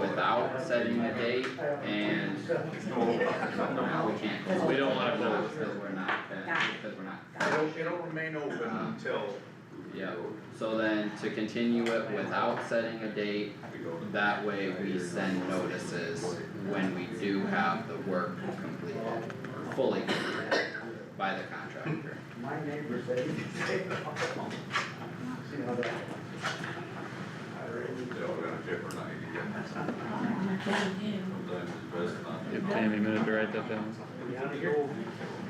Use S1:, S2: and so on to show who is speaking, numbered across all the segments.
S1: about setting the date and no, we can't, 'cause we don't wanna close, cause we're not, uh, because we're not. uh,
S2: It'll, it'll remain open until
S1: Yeah, so then to continue it without setting a date, that way we send notices when we do have the work completed, or fully completed by the contractor.
S3: My neighbors, they. See how that. I really-
S4: They all got a different idea. Sometimes it's best not to
S5: Give
S4: know.
S5: Tammy a minute to write that down.
S3: Yeah, they go-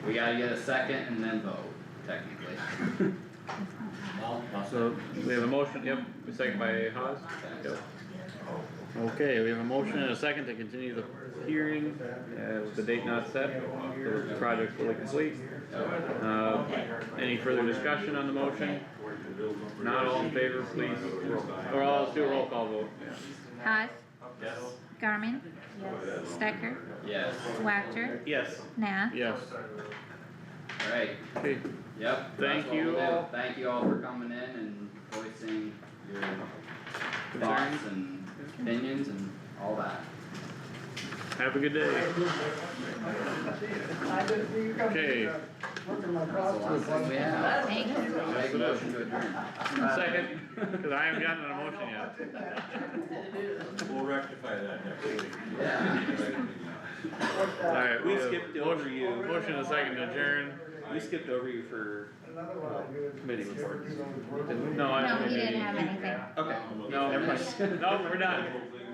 S1: We gotta get a second and then vote, technically.
S5: So we have a motion, yep, a second by Haas. Yep. Okay, we have a motion and a second to continue the hearing, uh, with the date not set, for the project fully complete. Uh, any further discussion on the motion? Not all in favor, please, or all, let's do a roll call vote.
S6: Haas. Garmin. Stecker.
S1: Yes,
S6: Wactor.
S5: Yes.
S6: Nah.
S5: Yes,
S1: alright,
S5: okay,
S1: yep. that's
S5: Thank
S1: what we'll
S5: you
S1: do.
S5: all.
S1: Thank you all for coming in and voicing your thoughts and opinions and all that.
S5: have a good day.
S3: I didn't see you coming.
S5: Okay.
S3: Working my
S1: That's the last
S3: crossword.
S1: thing we have.
S6: Thank you.
S1: Make a motion to adjourn.
S5: Second, cause I haven't gotten an emotion yet.
S4: We'll rectify that next week.
S1: Yeah.
S5: Alright, we
S7: We
S5: have
S7: skipped over you.
S5: motion and a second to adjourn.
S7: We skipped over you for,
S3: Another one I do is-
S7: Committee reports.
S5: No, I
S6: No,
S5: don't
S6: he
S5: think
S6: didn't
S5: any.
S6: have anything.
S7: okay,
S5: No,
S7: Never mind.
S5: no, we're done.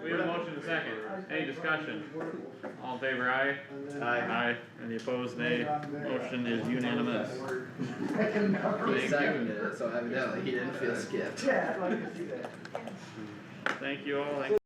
S5: We have a motion and a second. Any discussion? All in favor, aye?
S3: And then-
S5: Aye. Any opposed, nay? Motion is unanimous.
S3: I can never-
S1: He seconded it, so evidently he didn't feel skipped.
S3: Yeah, I'd like to see that.
S5: Thank you all, Thank